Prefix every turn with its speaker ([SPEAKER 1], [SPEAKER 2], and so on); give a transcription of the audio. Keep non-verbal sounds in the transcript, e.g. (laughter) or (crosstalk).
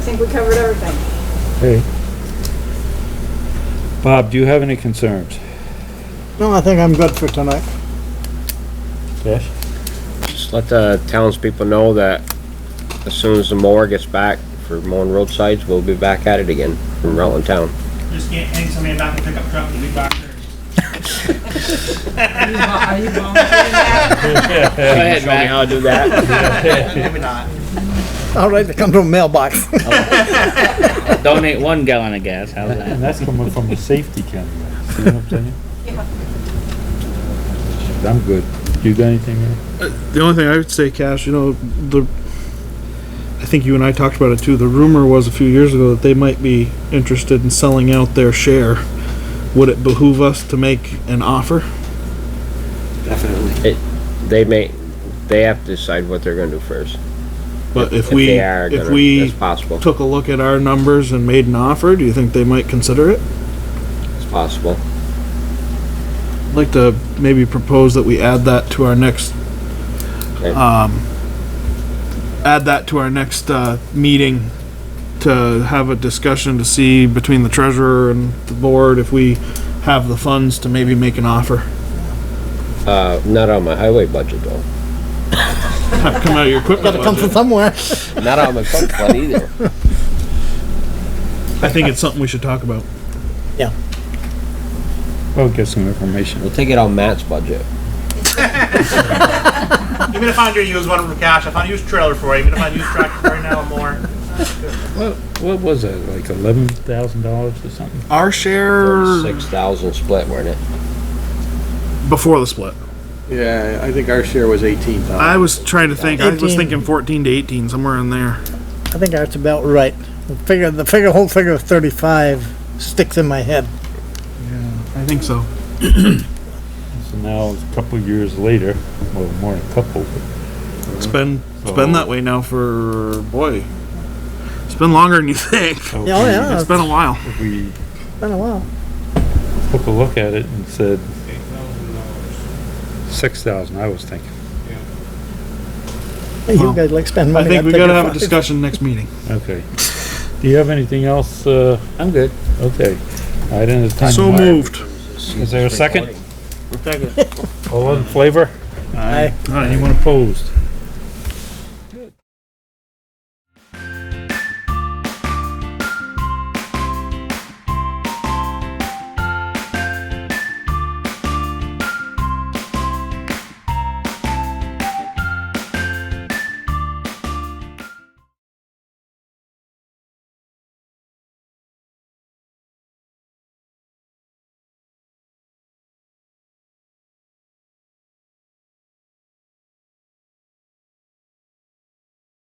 [SPEAKER 1] I think we covered everything.
[SPEAKER 2] Hey. Bob, do you have any concerns?
[SPEAKER 3] No, I think I'm good for tonight.
[SPEAKER 2] Yes.
[SPEAKER 4] Just let the townspeople know that as soon as the mower gets back for mowing roadsides, we'll be back at it again from Rutland Town.
[SPEAKER 5] Just can't hang somebody back in a pickup truck and be back there.
[SPEAKER 1] Are you volunteering that?
[SPEAKER 4] Go ahead, Matt. I'll do that.
[SPEAKER 5] Maybe not.
[SPEAKER 3] All right, they come to a mailbox. (laughs)
[SPEAKER 6] Donate one gallon of gas. How's that?
[SPEAKER 2] And that's coming from a safety candidate, you know what I'm (laughs) saying? I'm good. You got anything? Ray?
[SPEAKER 7] The only thing I would say, Cash, you know, the, I think you and I talked about it too. The rumor was a few years ago that they might be interested in selling out their share. Would it behoove us to make an offer?
[SPEAKER 4] (laughs) They may, they have to decide what they're gonna do first.
[SPEAKER 7] But if
[SPEAKER 4] If
[SPEAKER 7] we,
[SPEAKER 4] they are
[SPEAKER 7] if
[SPEAKER 4] gonna,
[SPEAKER 7] we
[SPEAKER 4] it's possible,
[SPEAKER 7] took a look at our numbers and made an offer, do you think they might consider it?
[SPEAKER 4] it's possible.
[SPEAKER 7] I'd like to maybe propose that we add that to our next,
[SPEAKER 4] Okay.
[SPEAKER 7] um, add that to our next, uh, meeting to have a discussion to see between the treasurer and the board if we have the funds to maybe make an offer.
[SPEAKER 4] Uh, not on my highway budget though.
[SPEAKER 7] Have come out of your equipment
[SPEAKER 3] Gotta come from
[SPEAKER 7] budget.
[SPEAKER 3] somewhere.
[SPEAKER 4] Not on my pump fund either.
[SPEAKER 7] I think it's something we should talk about.
[SPEAKER 2] Well, get some information.
[SPEAKER 4] We'll take it on Matt's budget.
[SPEAKER 5] Even if I'm gonna use one for cash, if I use trailer for it, even if I use tractor for it now more,
[SPEAKER 2] What, what was it, like eleven thousand dollars or something?
[SPEAKER 7] Our share
[SPEAKER 4] Six thousand split, weren't it?
[SPEAKER 7] before the split.
[SPEAKER 8] Yeah, I think our share was eighteen thousand.
[SPEAKER 7] I was trying to think, I was
[SPEAKER 3] 18.
[SPEAKER 7] thinking fourteen to eighteen, somewhere in there.
[SPEAKER 3] I think that's about right. The figure, the figure, whole figure of thirty-five sticks in my head.
[SPEAKER 7] I think so.
[SPEAKER 2] So now, a couple of years later, well, more than a couple,
[SPEAKER 7] It's been, it's been that way now for, boy, it's been longer than you think.
[SPEAKER 2] so
[SPEAKER 3] Yeah, oh yeah,
[SPEAKER 7] It's been a while.
[SPEAKER 2] if we
[SPEAKER 3] it's been a while.
[SPEAKER 2] took a look at it and said. Six thousand, I was thinking.
[SPEAKER 3] Hey, You
[SPEAKER 7] Well,
[SPEAKER 3] guys like spend money.
[SPEAKER 7] I think
[SPEAKER 3] I'll
[SPEAKER 7] we
[SPEAKER 3] take
[SPEAKER 7] gotta
[SPEAKER 3] your
[SPEAKER 7] have a
[SPEAKER 3] five.
[SPEAKER 7] discussion next meeting.
[SPEAKER 2] Okay. Do you have anything else, uh,
[SPEAKER 4] I'm good.
[SPEAKER 2] okay, I didn't have time.
[SPEAKER 7] So moved.
[SPEAKER 2] Is there a second? All in flavor?
[SPEAKER 3] Aye.
[SPEAKER 2] Anyone opposed?